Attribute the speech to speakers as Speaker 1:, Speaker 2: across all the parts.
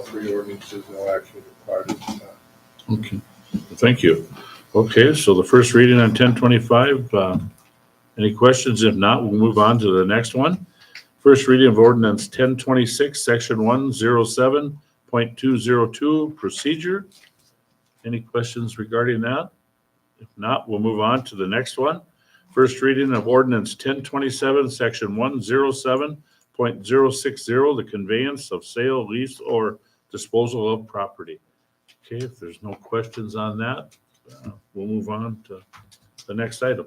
Speaker 1: three ordinances, no action required at this time.
Speaker 2: Okay, thank you. Okay, so the first reading on ten twenty-five, uh, any questions? If not, we'll move on to the next one. First reading of ordinance ten twenty-six, section one zero seven point two zero two, procedure. Any questions regarding that? If not, we'll move on to the next one. First reading of ordinance ten twenty-seven, section one zero seven point zero six zero, the conveyance of sale, lease, or disposal of property. Okay, if there's no questions on that, uh, we'll move on to the next item.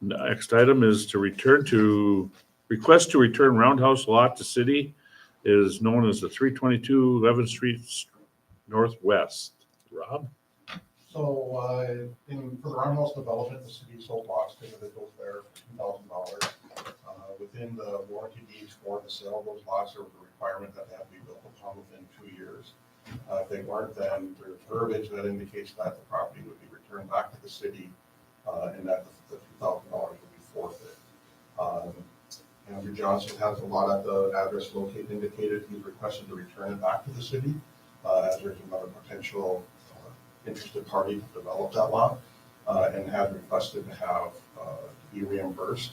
Speaker 2: Next item is to return to, request to return Roundhouse Lot to city is known as the 322 11th Street Northwest. Rob?
Speaker 3: So, uh, in, for the Roundhouse development, the city sold lots to individuals there for two thousand dollars. Uh, Within the warranty deeds for the sale of those lots, there was a requirement that they have to be built upon within two years. Uh, if they weren't, then there's verbiage that indicates that the property would be returned back to the city, uh, and that the two thousand dollars would be forfeit. Um, Andrew Johnson has a lot at the address located indicated, he's requested to return it back to the city, uh, as there's another potential uh, interested party to develop that lot uh, and had requested to have, uh, be reimbursed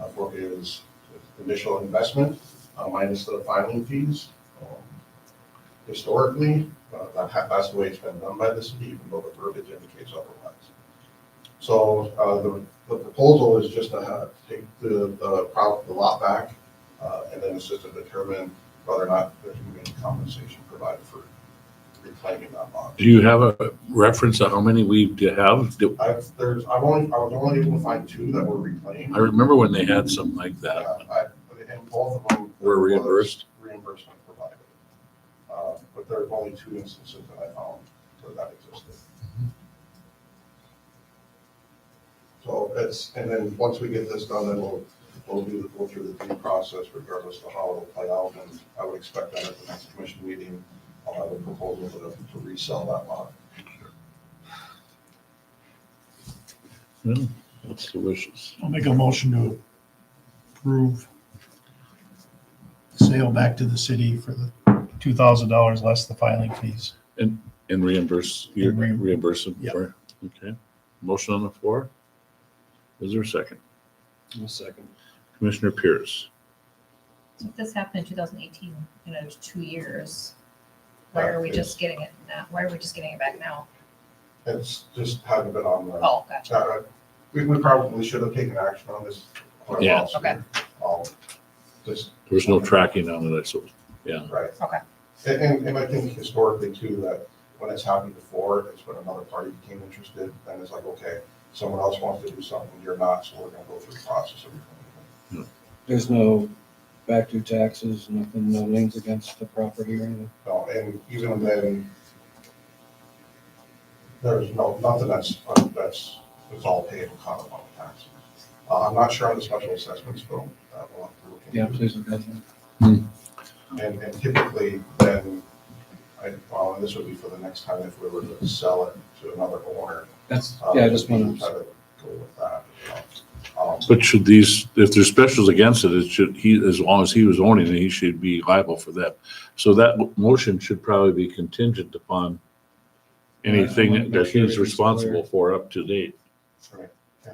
Speaker 3: uh, for his initial investment uh, minus the filing fees. Um, Historically, uh, that ha- that's the way it's been done by the city, even though the verbiage indicates otherwise. So uh, the the proposal is just to have, take the, the pro- the lot back uh, and then it's just to determine whether or not there's going to be any compensation provided for reclaiming that lot.
Speaker 2: Do you have a reference of how many we have?
Speaker 3: I've, there's, I've only, I was only able to find two that were reclaimed.
Speaker 2: I remember when they had something like
Speaker 3: Yeah,
Speaker 2: that.
Speaker 3: I, and both of them.
Speaker 2: Were reimbursed?
Speaker 3: Reimbursement provided. Uh, but there are only two instances that I found where that existed. So it's, and then once we get this done, then we'll, we'll do, go through the due process regardless of how it'll play out. And I would expect that at the next commission meeting, I'll have a proposal to, to resell that lot.
Speaker 2: hmm, That's delicious.
Speaker 4: I'll make a motion to approve the sale back to the city for the two thousand dollars less the filing fees.
Speaker 2: And reimburse, you
Speaker 4: And reimburse.
Speaker 2: reimburse them
Speaker 4: Yep.
Speaker 2: for, it. okay. Motion on the floor? Is there a second?
Speaker 4: second.
Speaker 2: Commissioner Pierce?
Speaker 5: So if this happened in two thousand eighteen, you know, there's two years. Why are we just getting it now? Why are we just getting it back now?
Speaker 3: It's just hadn't been on the.
Speaker 5: Oh, gotcha.
Speaker 3: Uh, We, we probably should have taken action on this. quite a while
Speaker 2: Yeah.
Speaker 3: sooner. Um, Just,
Speaker 2: There was no tracking on it, I suppose.
Speaker 3: right.
Speaker 5: Okay.
Speaker 3: And, and, and I think historically too, that when it's happened before, it's when another party became interested, then it's like, okay, someone else wants to do something, you're not, so we're gonna go through the process of.
Speaker 6: There's no back due taxes, nothing, no liens against the property or anything.
Speaker 3: No, and even then, there's no, nothing that's, that's, it's all paid in common on the taxes. Uh, I'm not sure on the special assessments, but uh, we'll have to look into.
Speaker 6: Yeah, please, look at that.
Speaker 3: And, and typically then, I, well, and this would be for the next time if we were to sell it to another owner.
Speaker 6: that's,
Speaker 3: um,
Speaker 6: yeah, I just
Speaker 3: we
Speaker 6: want
Speaker 3: try
Speaker 6: to,
Speaker 3: to Go with that, you know. Um,
Speaker 2: But should these, if there's specials against it, it should, he, as long as he was owning it, he should be liable for that. So that w- motion should probably be contingent upon anything that he's responsible for up to date.
Speaker 3: Right, yeah.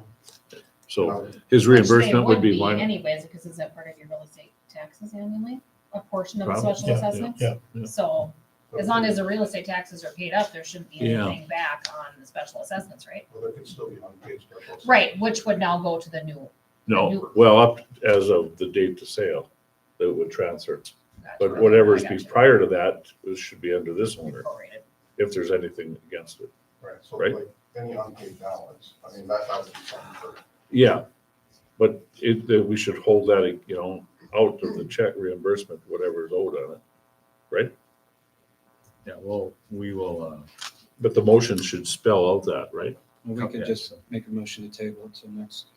Speaker 2: So
Speaker 3: um,
Speaker 2: his
Speaker 5: Which they
Speaker 2: reimbursement would
Speaker 5: would
Speaker 2: be minor.
Speaker 5: Anyways, because is that part of your real estate taxes annually? A portion of the
Speaker 2: Probably,
Speaker 5: special
Speaker 4: yeah,
Speaker 5: assessments?
Speaker 4: yeah,
Speaker 2: yeah.
Speaker 5: So as long as the real estate taxes are paid up, there shouldn't be
Speaker 2: Yeah.
Speaker 5: anything back on the special assessments, right?
Speaker 3: Well, there could still be unpaid special. assessments.
Speaker 5: Right, which would now go to the new.
Speaker 2: No, well, up as of the date to sale, that would transfer.
Speaker 5: gotcha.
Speaker 2: But whatever is
Speaker 5: I gotcha.
Speaker 2: prior to that, it should be under this owner,
Speaker 5: Prorated.
Speaker 2: if there's anything against it.
Speaker 3: Right, so
Speaker 2: Right.
Speaker 3: like any unpaid balance, I mean, that, that would be something for,
Speaker 2: Yeah, but it, that we should hold that, you know, out of the check reimbursement, whatever is owed on it, right? Yeah, well, we will, uh. But the motion should spell out that, right?
Speaker 6: we could
Speaker 7: Okay.
Speaker 6: just make a motion to table it till next.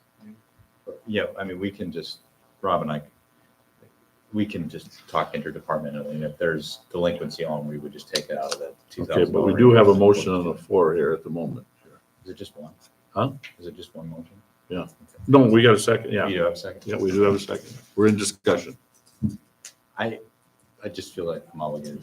Speaker 7: Yeah, I mean, we can just, Rob and I, we can just talk interdepartmentally, and if there's delinquency on, we would just take it out of that two
Speaker 2: Okay,
Speaker 7: thousand.
Speaker 2: but we do have a motion on the floor here at the moment.
Speaker 7: Is it just one?
Speaker 2: Huh?
Speaker 7: Is it just one motion?
Speaker 2: Yeah. No, we got a second,
Speaker 7: You
Speaker 2: yeah,
Speaker 7: do have a second?
Speaker 2: yeah, we do have a second. We're in discussion.
Speaker 7: I just feel like I'm obligated